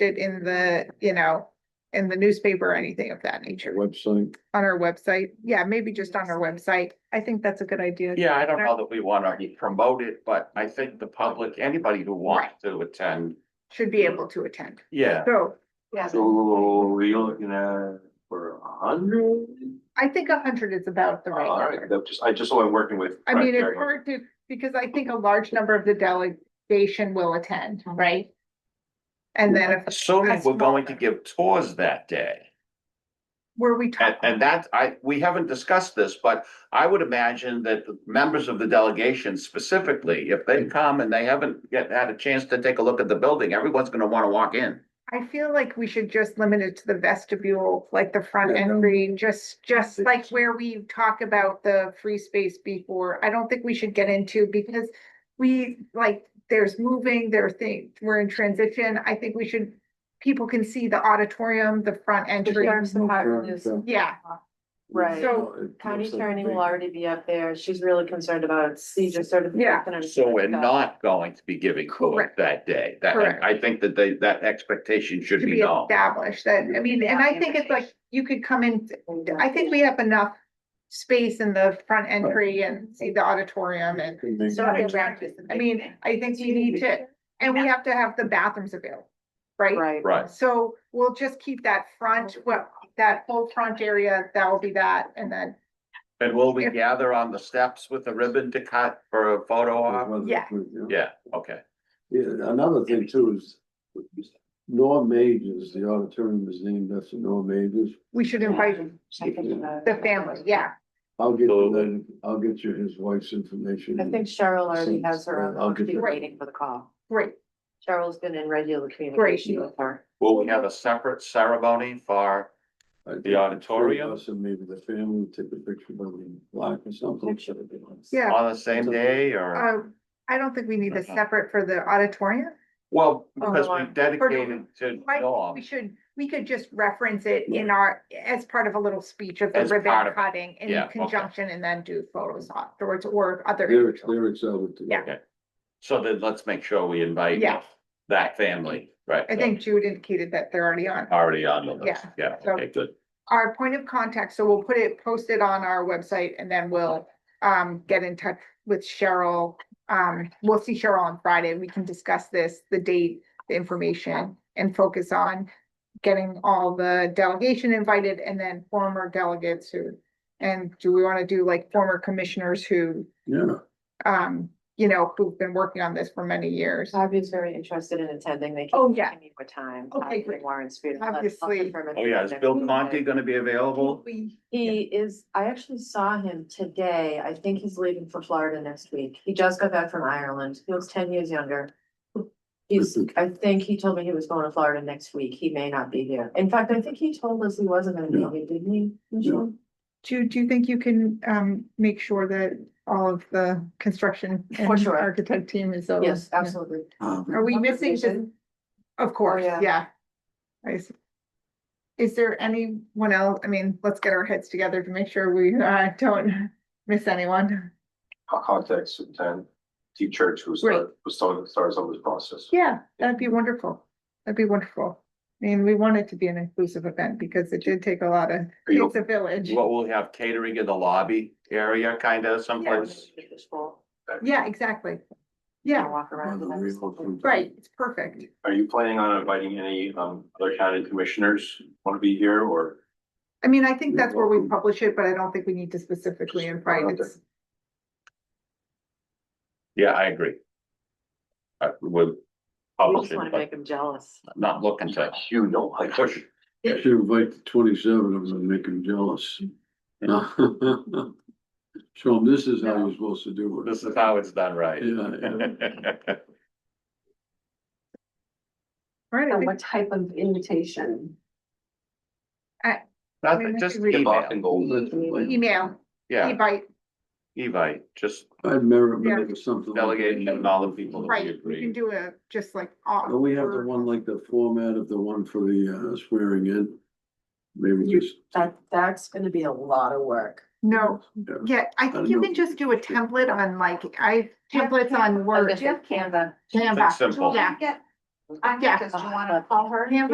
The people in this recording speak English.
it in the, you know, in the newspaper or anything of that nature. website. On our website, yeah, maybe just on our website. I think that's a good idea. Yeah, I don't know that we wanna promote it, but I think the public, anybody who wants to attend, Should be able to attend. yeah. So, yeah, So we looking at for a hundred? I think a hundred is about the right All right, number. that just, I just so I'm working with. I mean, it's criteria. hard to, because I think a large number of the delegation will attend, right? And then if, Assuming That's we're going to smaller. give tours that day. were we And, talking? and that, I, we haven't discussed this, but I would imagine that the members of the delegation specifically, if they come and they haven't yet had a chance to take a look at the building, everyone's gonna wanna walk in. I feel like we should just limit it to the vestibule, like the front Yeah. entry, just, just like where we talk about the free space before. I don't think we should get into because we, like, there's moving, there are things, we're in transition. I think we should, people can see the auditorium, the front entry. Uh, Yeah, Right, So, No, it county looks like attorney big. will already be up there, she's really concerned about seizure Yeah. certification. and So we're stuff. not going to be giving tours Correct. that day. That, Correct. I think that they, that expectation should to be be known. established that, I mean, and I Yeah. think it's like, you could come in, uh, I think we have enough space in the front entry and see the auditorium and So Not I think- attractive. I mean, I think we need to, and we have to have the bathrooms available, right? Right. Right. So we'll just keep that front, well, that whole front area, that will be that, and then, And will we If- gather on the steps with a ribbon to cut for a photo op? Yeah. Yeah, okay. Yeah, another thing too is Norm Majors, the auditorium is named after Norm Majors. we should invite I think, uh, the family, yeah. I'll get you that, I'll get you his wife's information. I think Cheryl already has her own, I'll I'll give be you- waiting for the call. Great, Cheryl's been in regular communication with her. Will we have a separate ceremony for, I think the auditorium? us And maybe the family take a picture by the block or something. yeah, on the same day or? uh, I don't think we need a Okay. separate for the auditorium. Well, because we or- dedicated to I think We Norm. should, we could just reference it in our, as part of a little speech of the As part ribbon of- cutting yeah, in okay. conjunction and then do photos afterwards or other. Lyrics, lyrics out with. the- Yeah. So then let's make sure we invite Yeah. that family, right? I think Jude indicated that they're already on. Already on the list. Yeah. Yeah, So- okay, good. our point of contact, so we'll put it, post it on our website and then we'll um get in touch with Cheryl. Um, we'll see Cheryl on Friday. We can discuss this, the date, the information and focus on getting all the delegation invited and then former delegates who and do we want to do like former commissioners who Yeah. um, you know, who've been working on this for many years? Bobby's very interested in attending, they Oh, can yeah. give me more time. Okay, Bobby great. Warren's food. Obviously. Oh, yeah, is Bill Conti gonna be available? We, He is, I actually saw him today. I think he's leaving for Florida next week. He just got back from Ireland. He looks ten years younger. He's, I think he told me he was going to Florida next week. He may not be here. In fact, I think he told us he wasn't gonna be here, didn't he? Michelle? do, do you think you can um make sure that all of the construction For and sure. architect team is? over? Yes, Yeah. absolutely. Um, Are we missing just, Conversation? of course, yeah. yeah. I s- Is there anyone else? I mean, let's get our heads together to make sure we uh don't miss anyone. I'll contact Superintendent T Church, who's, Great. who's starting, starts on this process. Yeah, that'd be wonderful. That'd be wonderful. I mean, we want it to be an inclusive event because it did take a lot of, Are you- it's a village. What, we'll have catering in the lobby area kind of someplace? Yeah, exactly. Yeah, Yeah, walk around. and everything. right, it's perfect. Are you planning on inviting any, um, other county commissioners want to be here or? I mean, I think You're that's where we welcome. publish it, but I don't think we need to specifically Just invite put it out it. Yeah, I agree. I would We publish just it, wanna but make him jealous. not looking to You know, I push. I should invite the twenty-seven of them and make them jealous. Show them this is how you're supposed to do it. This is how it's done right. Yeah, yeah. Right, I think- type of invitation? Not Maybe I just should read it. email, email, yeah, invite, Evite, just I'd merit Yeah. maybe something. like that. delegate and all the people that we right, we can agree. do a, just like. all- Don't we have the one like the format of the one for the uh, swearing in? Maybe You- just. That, that's gonna be a lot of work. No, Yeah. Yeah, I think you can just do a template on like, I, templates on Word. Canva. Something oh, Canva, simple. yeah, I, Yeah. does you wanna call her?